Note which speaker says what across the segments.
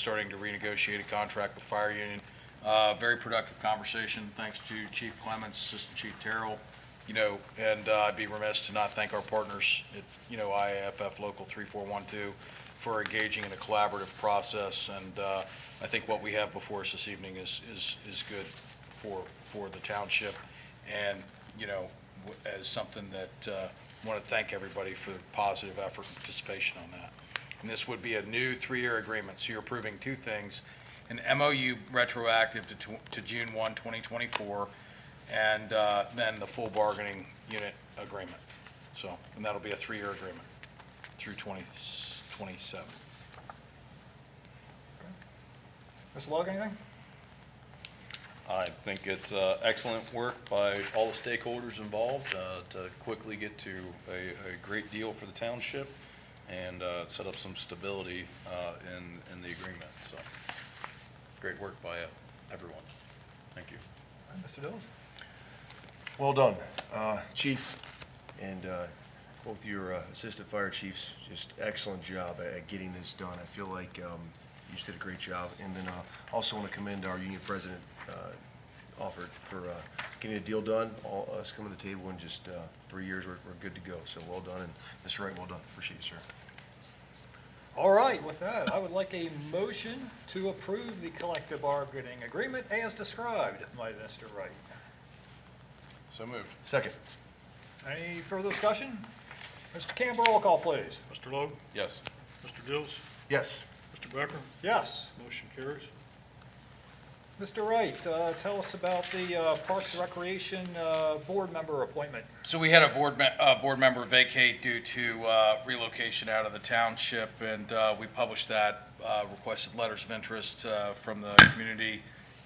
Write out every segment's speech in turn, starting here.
Speaker 1: starting to renegotiate a contract with Fire Union. Uh, Very productive conversation, thanks to Chief Clements, Assistant Chief Terrell, you know, and uh, I'd be remiss to not thank our partners at, you know, IAFF Local 3412 for engaging in a collaborative process, and uh, I think what we have before us this evening is, is, is good for, for the township, and, you know, w- as something that, uh, want to thank everybody for their positive effort and participation on that. And this would be a new three-year agreement, so you're approving two things. An MOU retroactive to, tw- to June 1, 2024, and uh, then the full bargaining unit agreement. So, and that'll be a three-year agreement through 2027.
Speaker 2: Mr. Log, anything?
Speaker 3: I think it's uh, excellent work by all the stakeholders involved uh, to quickly get to a, a great deal for the township and uh, set up some stability uh, in, in the agreement, so. Great work by uh, everyone. Thank you.
Speaker 2: Mr. Dills?
Speaker 4: Well done, uh, Chief, and uh, both your uh, Assistant Fire Chiefs, just excellent job at- at getting this done. I feel like um, you just did a great job. And then uh, also want to commend our Union President uh, Alford for uh, getting a deal done, all us coming to the table in just uh, three years, we're we're good to go. So well done, and Mr. Wright, well done. Appreciate you, sir.
Speaker 2: All right, with that, I would like a motion to approve the collective bargaining agreement as described by Mr. Wright.
Speaker 3: So moved.
Speaker 4: Second.
Speaker 2: Any further discussion? Mr. Campbell, roll call, please.
Speaker 5: Mr. Logue,
Speaker 3: Yes.
Speaker 5: Mr. Dills,
Speaker 4: Yes.
Speaker 5: Mr. Becker,
Speaker 2: Yes.
Speaker 5: motion carries.
Speaker 2: Mr. Wright, uh, tell us about the uh, Parks Recreation uh, Board member appointment.
Speaker 1: So we had a board, me- uh, board member vacate due to uh, relocation out of the township, and uh, we published that, uh, requested letters of interest uh, from the community,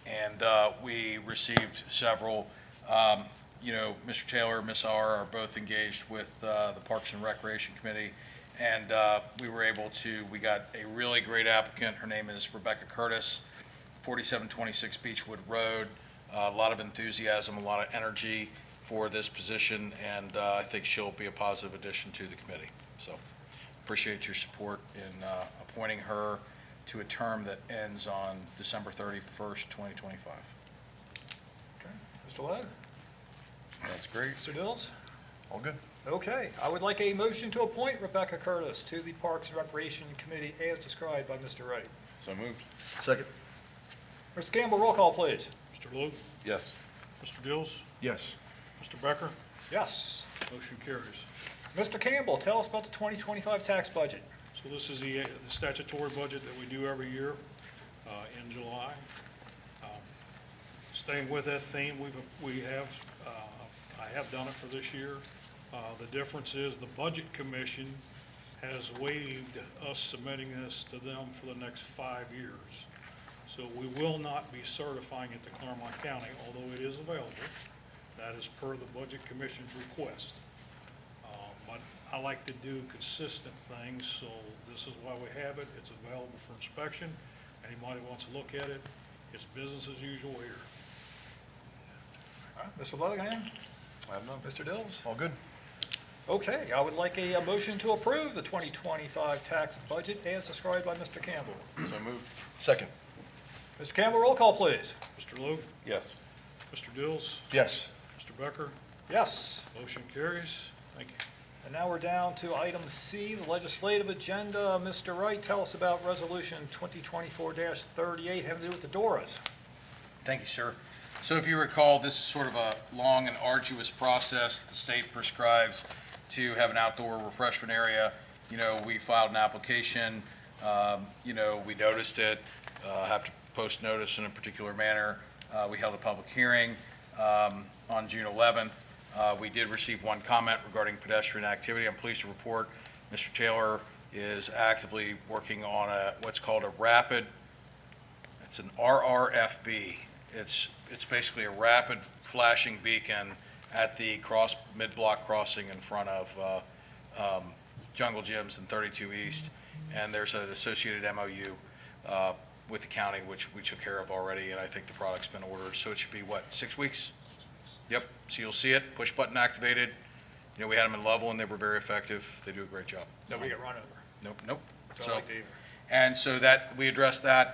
Speaker 1: and uh, we received several. Um, You know, Mr. Taylor, Ms. R are both engaged with uh, the Parks and Recreation Committee, and uh, we were able to, we got a really great applicant. Her name is Rebecca Curtis, 4726 Beechwood Road. Uh, A lot of enthusiasm, a lot of energy for this position, and uh, I think she'll be a positive addition to the committee. So appreciate your support in uh, appointing her to a term that ends on December 31st, 2025.
Speaker 2: Mr. Logue?
Speaker 3: That's great.
Speaker 2: Mr. Dills?
Speaker 4: All good.
Speaker 2: Okay, I would like a motion to appoint Rebecca Curtis to the Parks and Recreation Committee as described by Mr. Wright.
Speaker 3: So moved.
Speaker 4: Second.
Speaker 2: Mr. Campbell, roll call, please.
Speaker 5: Mr. Logue,
Speaker 3: Yes.
Speaker 5: Mr. Dills,
Speaker 4: Yes.
Speaker 5: Mr. Becker,
Speaker 2: Yes.
Speaker 5: motion carries.
Speaker 2: Mr. Campbell, tell us about the 2025 tax budget.
Speaker 5: So this is the uh, the statutory budget that we do every year uh, in July. Um, Staying with that theme, we've, we have, uh, I have done it for this year. Uh, The difference is the Budget Commission has waived us submitting this to them for the next five years. So we will not be certifying it to Claremont County, although it is available. That is per the Budget Commission's request. Um, But I like to do consistent things, so this is why we have it. It's available for inspection. Anybody who wants to look at it, it's business as usual here.
Speaker 2: Mr. Logan?
Speaker 3: I have none.
Speaker 2: Mr. Dills?
Speaker 4: All good.
Speaker 2: Okay, I would like a uh, motion to approve the 2025 tax budget as described by Mr. Campbell.
Speaker 3: So moved.
Speaker 4: Second.
Speaker 2: Mr. Campbell, roll call, please.
Speaker 5: Mr. Logue,
Speaker 3: Yes.
Speaker 5: Mr. Dills,
Speaker 4: Yes.
Speaker 5: Mr. Becker,
Speaker 2: Yes.
Speaker 5: motion carries. Thank you.
Speaker 2: And now we're down to item C, the legislative agenda. Mr. Wright, tell us about Resolution 2024-38 having to do with the DORAs.
Speaker 1: Thank you, sir. So if you recall, this is sort of a long and arduous process the state prescribes to have an outdoor refreshment area. You know, we filed an application, um, you know, we noticed it, uh, have to post notice in a particular manner. Uh, We held a public hearing um, on June 11th. Uh, We did receive one comment regarding pedestrian activity. I'm pleased to report Mr. Taylor is actively working on a, what's called a rapid it's an RRFB. It's, it's basically a rapid flashing beacon at the cross, mid-block crossing in front of uh, um, Jungle Gyms and 32 East. And there's an associated MOU uh, with the county, which we took care of already, and I think the product's been ordered. So it should be, what, six weeks? Yep, so you'll see it, push button activated. You know, we had them in Level, and they were very effective. They do a great job.
Speaker 2: No, we get run over.
Speaker 1: Nope, nope.
Speaker 2: Don't
Speaker 1: So
Speaker 2: like to hear.
Speaker 1: And so that, we addressed that